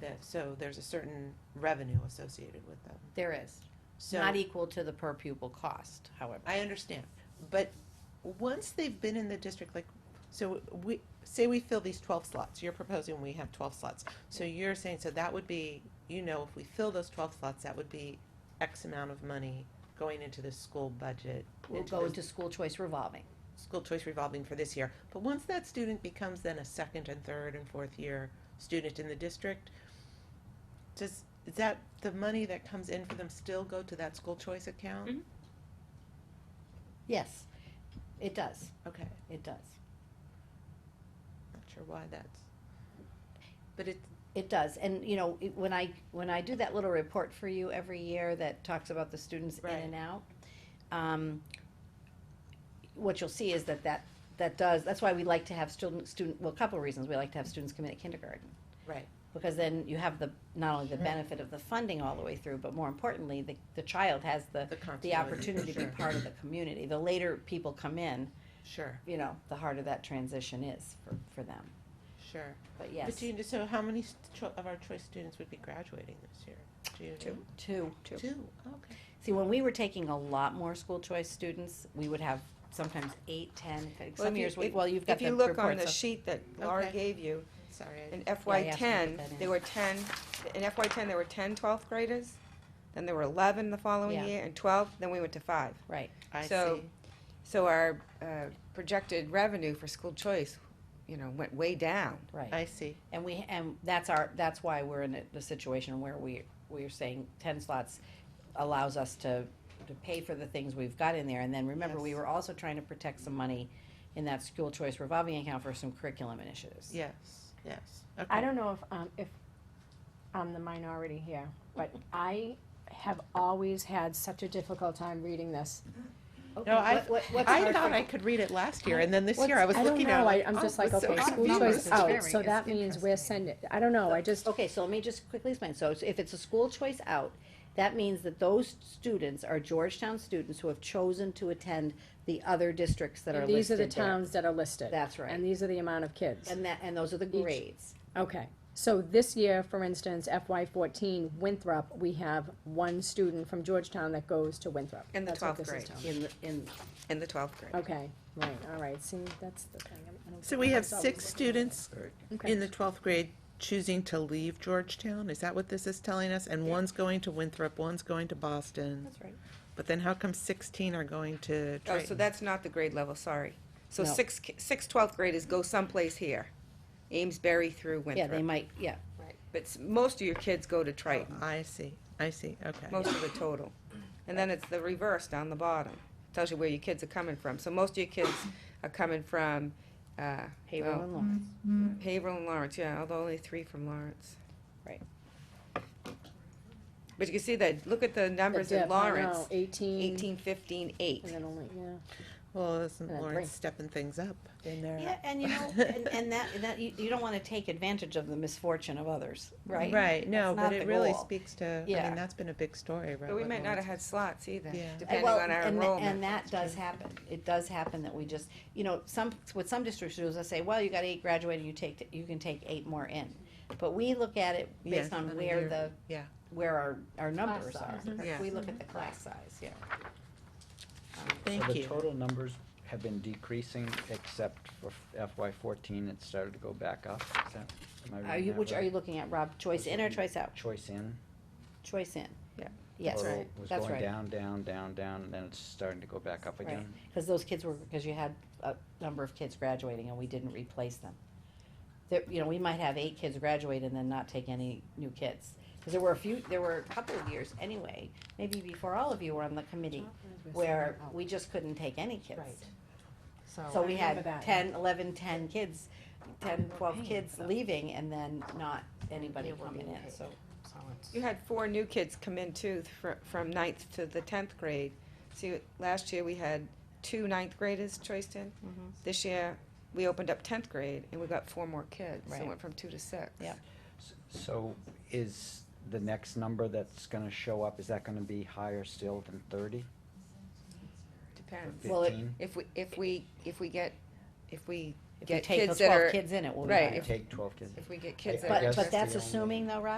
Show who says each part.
Speaker 1: that, so there's a certain revenue associated with them.
Speaker 2: There is.
Speaker 1: So
Speaker 2: Not e-, equal to the per pupil cost, however.
Speaker 1: I understand, but once they've been in the district, like, so we, say we fill these twelve slots, you're proposing we have twelve slots. So you're saying, so that would be, you know, if we fill those twelve slots, that would be X amount of money going into the school budget.
Speaker 2: We'll
Speaker 1: into
Speaker 2: go
Speaker 1: the
Speaker 2: into school choice revolving.
Speaker 1: School choice revolving for this year. But once that student becomes then a second and third and fourth year student in the district, does, is that, the money that comes in for them still go to that school choice account?
Speaker 3: Mhm.
Speaker 2: Yes, it does,
Speaker 1: Okay.
Speaker 2: it does.
Speaker 1: Not sure why that's, but it,
Speaker 2: It does, and you know, it- when I, when I do that little report for you every year that talks about the students in
Speaker 1: Right.
Speaker 2: and out, um, what you'll see is that that, that does, that's why we like to have student, student, well, a couple of reasons, we like to have students come in at kindergarten.
Speaker 1: right,
Speaker 2: Because then you have the, not only the
Speaker 1: Sure.
Speaker 2: benefit of the funding all the way through, but more importantly, the, the child has the,
Speaker 1: the
Speaker 2: the
Speaker 1: continuity,
Speaker 2: opportunity to be
Speaker 1: sure,
Speaker 2: part of the community. The later people come in,
Speaker 1: Sure,
Speaker 2: you know, the harder that transition is for, for them.
Speaker 1: sure.
Speaker 2: But
Speaker 1: But
Speaker 2: yes,
Speaker 1: do you, so how many st- cho- of our choice students would be graduating this year? Do you
Speaker 3: Two.
Speaker 2: two.
Speaker 1: know? Two, okay.
Speaker 2: See, when we were taking a lot more school choice students, we would have sometimes eight, ten,
Speaker 3: Well, if
Speaker 2: some
Speaker 3: you-
Speaker 2: years, we-
Speaker 3: if-
Speaker 2: well, you've got
Speaker 3: If
Speaker 2: the
Speaker 3: you
Speaker 2: reports.
Speaker 3: look on the
Speaker 2: of-
Speaker 3: sheet that Laura
Speaker 1: Okay.
Speaker 3: gave you,
Speaker 1: Sorry, I
Speaker 3: in
Speaker 1: didn't-
Speaker 2: Yeah, I
Speaker 3: FY
Speaker 2: asked her to
Speaker 3: ten,
Speaker 2: put that in.
Speaker 3: there were ten, in FY ten, there were 10 12th graders, then there were eleven the following
Speaker 2: Yeah.
Speaker 3: year, and twelve, then we went to five.
Speaker 2: Right,
Speaker 1: I
Speaker 3: so-
Speaker 1: see.
Speaker 3: So our, uh, projected revenue for school choice, you know, went way down.
Speaker 2: right.
Speaker 1: I see,
Speaker 2: And we, and that's our, that's why we're in a- the situation where we, we're saying ten slots allows us to, to pay for the things we've got in there. And then remember, we
Speaker 1: Yes.
Speaker 2: were also trying to protect some money in that school choice revolving account for some curriculum initiatives.
Speaker 1: yes, yes, okay.
Speaker 4: I don't know if, um, if I'm the minority here, but I have always had such a difficult time reading this.
Speaker 2: Okay,
Speaker 1: No, I-
Speaker 2: what- what- what's
Speaker 1: I
Speaker 2: hard
Speaker 1: thought
Speaker 2: for-
Speaker 1: I could read it last year, and then this year I was
Speaker 4: I don't
Speaker 1: looking at it.
Speaker 4: know, I,
Speaker 1: like,
Speaker 4: I'm
Speaker 1: oh,
Speaker 4: just like,
Speaker 1: it's so
Speaker 4: okay,
Speaker 1: much
Speaker 4: school
Speaker 1: money.
Speaker 4: choice
Speaker 1: It's
Speaker 4: is out,
Speaker 1: very-
Speaker 4: so that means we're sending, I don't know, I just,
Speaker 2: Okay, so let me Oh, just quickly explain. So it's- if it's a school choice out, that means that those students are Georgetown students who have chosen to attend the other districts that are
Speaker 4: and these are
Speaker 2: listed
Speaker 4: the
Speaker 2: there.
Speaker 4: towns that are listed.
Speaker 2: That's right.
Speaker 4: And these are the amount of kids.
Speaker 2: And that, and those are the
Speaker 4: Each-
Speaker 2: grades.
Speaker 4: Okay, so this year, for instance, FY fourteen Winthrop, we have one student from Georgetown that goes to Winthrop.
Speaker 3: In the
Speaker 4: That's what
Speaker 3: 12th
Speaker 4: this is
Speaker 3: grade.
Speaker 4: telling me.
Speaker 2: In, the in,
Speaker 3: In the twelfth
Speaker 2: Oh,
Speaker 3: grade.
Speaker 4: Okay, right, all right, see, that's the thing. I don't-
Speaker 1: So we have
Speaker 4: I was always
Speaker 1: six
Speaker 4: looking at it.
Speaker 1: students
Speaker 4: Okay.
Speaker 1: in the twelfth grade choosing to leave Georgetown, is that what this is telling us? And one's going to Winthrop, one's going to Boston,
Speaker 2: that's right.
Speaker 1: but then how come sixteen are going to
Speaker 3: Oh, so
Speaker 1: Triton?
Speaker 3: that's not the grade level, sorry. So
Speaker 2: No.
Speaker 3: six, ki- six twelfth graders go someplace here, Amesbury through
Speaker 2: Yeah, they
Speaker 3: Winthrop.
Speaker 2: might, yeah.
Speaker 3: But s- most of your kids go to Triton,
Speaker 1: I see, I see, okay.
Speaker 3: most of the total. And then it's the reverse down the bottom, tells you where your kids are coming from. So most of your kids are coming from, uh,
Speaker 2: Haverhill
Speaker 1: Oh.
Speaker 3: well,
Speaker 2: and
Speaker 1: Mm-hmm.
Speaker 2: Lawrence.
Speaker 3: Haverhill and Lawrence, yeah, although only three from Lawrence.
Speaker 2: Right.
Speaker 3: But you can see that, look at the numbers
Speaker 4: The
Speaker 3: in
Speaker 4: dip, I know,
Speaker 3: Lawrence,
Speaker 4: Eighteen,
Speaker 3: eighteen, fifteen, eight.
Speaker 4: and then only, yeah.
Speaker 1: Well, isn't
Speaker 4: Uh,
Speaker 1: Lawrence
Speaker 4: great.
Speaker 1: stepping things up in there?
Speaker 2: Yeah, and you know, and, and that, and that, you, you don't wanna take advantage of the misfortune of others, right?
Speaker 1: Right, no,
Speaker 2: That's
Speaker 1: but
Speaker 2: not
Speaker 1: it
Speaker 2: the
Speaker 1: really
Speaker 2: goal.
Speaker 1: speaks to, I
Speaker 2: Yeah.
Speaker 1: mean, that's been a big story, right?
Speaker 3: But we
Speaker 1: with
Speaker 3: might not have
Speaker 1: Lawrence.
Speaker 3: had slots either,
Speaker 1: Yeah. Uh,
Speaker 3: depending
Speaker 2: well,
Speaker 3: on our
Speaker 2: and tha-
Speaker 3: enrollment.
Speaker 2: And that does happen. It does happen that we just, you know, some, what some districts do is they say, well, you got eight graduating, you take, t- you can take eight more in. But we look at it
Speaker 1: Yes,
Speaker 2: based
Speaker 1: on a
Speaker 2: on where
Speaker 1: year.
Speaker 2: the,
Speaker 1: Yeah. Mm-hmm.
Speaker 2: where our, our numbers are.
Speaker 4: size.
Speaker 3: Yeah.
Speaker 2: We look at the class size, yeah.
Speaker 5: So
Speaker 1: Thank
Speaker 5: the
Speaker 1: you.
Speaker 5: total numbers have been decreasing except for FY fourteen, it started to go back up. Is that, am I
Speaker 2: Um, Are
Speaker 5: reading
Speaker 2: you,
Speaker 5: that
Speaker 2: which are
Speaker 5: right?
Speaker 2: you looking at, Rob? Choice in or choice out?
Speaker 5: Choice in.
Speaker 2: Choice in.
Speaker 3: Yeah.
Speaker 2: Yes,
Speaker 5: total
Speaker 2: right.
Speaker 5: Was
Speaker 2: that's
Speaker 5: going
Speaker 2: right.
Speaker 5: down, down, down, down, and then it's starting to go back up
Speaker 2: Right.
Speaker 5: again.
Speaker 2: Cause those kids were, cause you had a number of kids graduating and we didn't replace them. There, you know, we might have eight kids graduate and then not take any new kids. Cause there were a few, there were a couple of years anyway, maybe before all of you were on the committee, where we just couldn't take any kids.
Speaker 4: Right. Oh,
Speaker 2: So
Speaker 4: I
Speaker 2: we
Speaker 4: remember
Speaker 2: had
Speaker 4: that.
Speaker 2: ten, eleven, ten kids, ten, twelve kids leaving and then not anybody coming in, so.
Speaker 3: You had four new kids come in too, th- fr- from ninth to the tenth grade. See, last year we had two ninth graders choiced in.
Speaker 2: Mhm.
Speaker 3: This year, we opened up tenth grade and we got four more kids, so
Speaker 2: Right.
Speaker 3: it went from two to six.
Speaker 2: Yep.
Speaker 5: S- So is the next number that's gonna show up, is that gonna be higher still than thirty?
Speaker 3: Depends.
Speaker 2: Well, it-
Speaker 5: Fifteen?
Speaker 3: If we, if we, if we get, if we
Speaker 2: If you
Speaker 3: get
Speaker 2: take
Speaker 3: kids
Speaker 2: those
Speaker 3: that
Speaker 2: twelve
Speaker 3: are,
Speaker 2: kids in, it will be
Speaker 3: right,
Speaker 2: higher.
Speaker 5: Take twelve kids.
Speaker 3: if we get kids
Speaker 5: I
Speaker 3: that are.
Speaker 2: But,
Speaker 5: guess
Speaker 2: but
Speaker 3: interested-
Speaker 5: the
Speaker 2: that's
Speaker 5: only-
Speaker 2: assuming though, Rob,